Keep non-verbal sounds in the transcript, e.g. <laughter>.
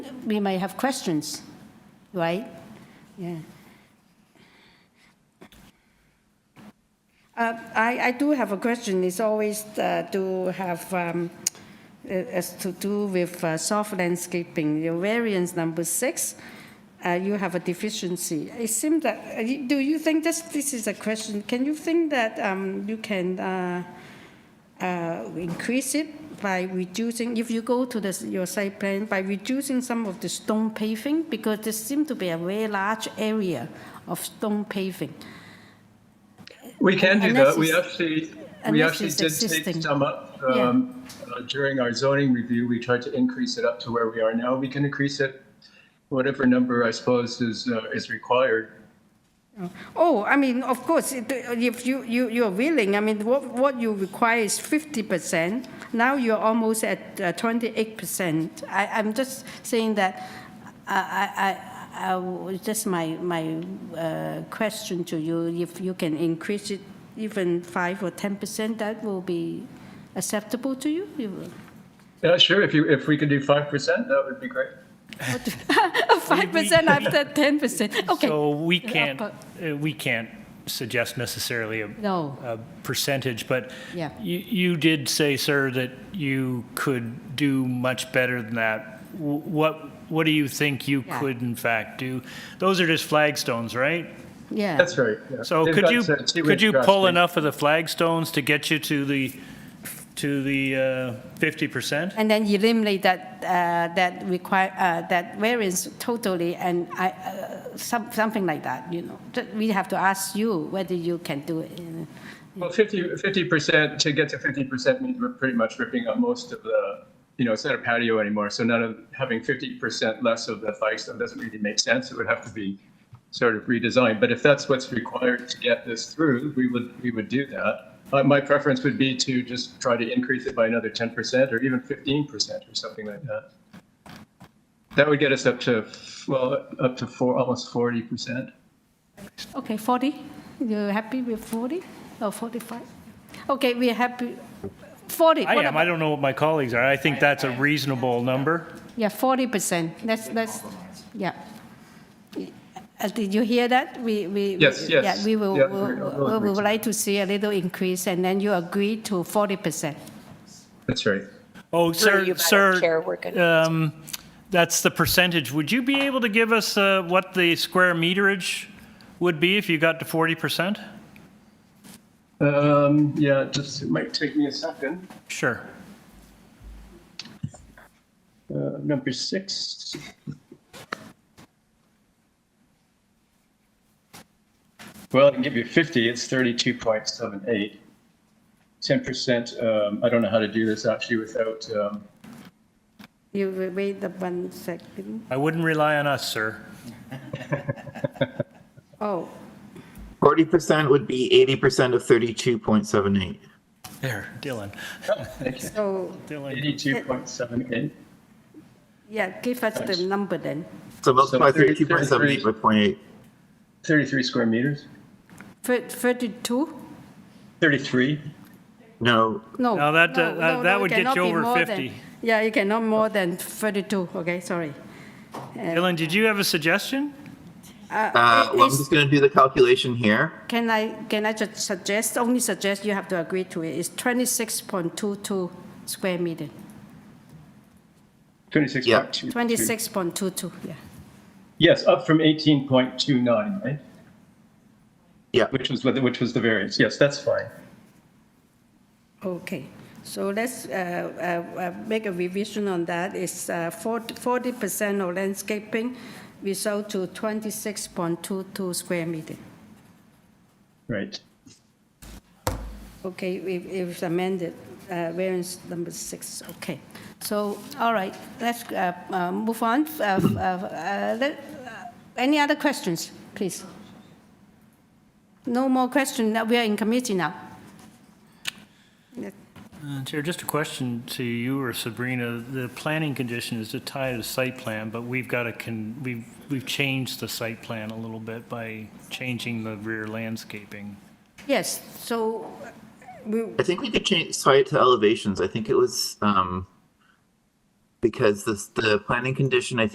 we might have questions, right? Yeah. Uh, I, I do have a question. It's always uh, to have, um, as to do with uh, soft landscaping. Your variance number six, uh, you have a deficiency. It seems that, uh, you- do you think this, this is a question, can you think that um, you can uh, uh, increase it by reducing, if you go to the, your site plan, by reducing some of the stone paving? Because there seems to be a very large area of stone paving. We can do Unless that. We it's- actually, we unless actually it's did existing. take some up Yeah. um, uh, during our zoning review. We tried to increase it up to where we are now. We can increase it whatever number I suppose is, uh, is required. Oh, I mean, of course, it- if you, you, you're willing, I mean, what, what you require is fifty percent. Now you're almost at uh, twenty-eight percent. I, I'm just saying that, I, I, I, I w- just my, my uh, question to you, if you can increase it even five or ten percent, that will be acceptable to you? you? Yeah, sure. If you, if we could do 5%, that would be great. <laughs> Five percent after ten percent, okay. So we can't, but- uh, we can't suggest necessarily a No. a percentage, but Yeah. you, you did say, sir, that you could do much better than that. Wh- What, what do you think you Yeah. could in fact do? Those are just flagstones, right? Yeah, That's right. yeah. So They've could got, you, uh, two-inch could you pull grass enough of the flagstones to get you to the, to the uh, fifty percent? and then eliminate that, uh, that require, uh, that variance totally, and I, uh, some, something like that, you know. That We have to ask you whether you can do it. you know. Well, 50, 50%, to get to 50% means we're pretty much ripping up most of the, you know, it's not a patio anymore. So none of, having 50% less of the flagstone doesn't really make sense. It would have to be sort of redesigned. But if that's what's required to get this through, we would, we would do that. Uh, My preference would be to just try to increase it by another 10% or even 15% or something like that. That would get us up to, well, up to four, almost 40%. Okay, 40? You're happy with 40 or 45? Okay, we're happy, 40. I what am, I about- don't know what my colleagues are, I think that's a reasonable number. Yeah, 40%, that's, that's, yeah. Uh, Did you hear that? We, we. Yes, we- yes. Yeah, we will, Yeah, we'll- we'll- we'll- we'll we agree to would like to see a little increase, and then you agree to 40%. That's right. Oh, Through you, sir, Madam Chair, sir, we're going um, that's the percentage. Would you be able to give us uh, what the square meterage would be if you got to 40%? Um, Yeah, just, it might take me a second. Sure. Uh, number six. Well, I can give you 50, it's 32.78. 10%, um, I don't know how to do this actually without, um, You will wait the one second. I wouldn't rely on us, sir. Oh, Forty percent would be eighty percent of thirty-two point seven eight. There, Dylan. so, Dylan, 82.78. yeah, give us the number then. So multiply So thirty- thirty-two point seven eight by point eight. 33 square meters, Thir- 32? 33. No, No. No, that, no, uh, that- no, that no, it would get you cannot be over more than- 50. Yeah, you cannot more than 32, okay, sorry. Dylan, did you have a suggestion? uh, well, I'm it's- just gonna do the calculation here. Can I, can I just suggest, only suggest you have to agree to it, it's 26.22 square meter, 26.2. 26.22, yeah. Yes, up from 18.29, right? Yeah, Which was, what- which was the variance. Yes, that's fine. Okay, so let's uh, uh, uh, make a revision on that. It's uh, 40 percent of landscaping result to 26.22 square meter. Right. Okay, it it was amended, uh, variance number six, okay. So, all right, let's uh, uh, move on. Uh, uh, uh, let- uh, Any other questions, please? No more question, we are in committee now. Uh, Chair, just a question to you or Sabrina. The planning condition is to tie to the site plan, but we've got to, con- we've, we've changed the site plan a little bit by changing the rear landscaping. Yes, so, uh, we, I think we could change site to elevations. I think it was um because this the planning condition. I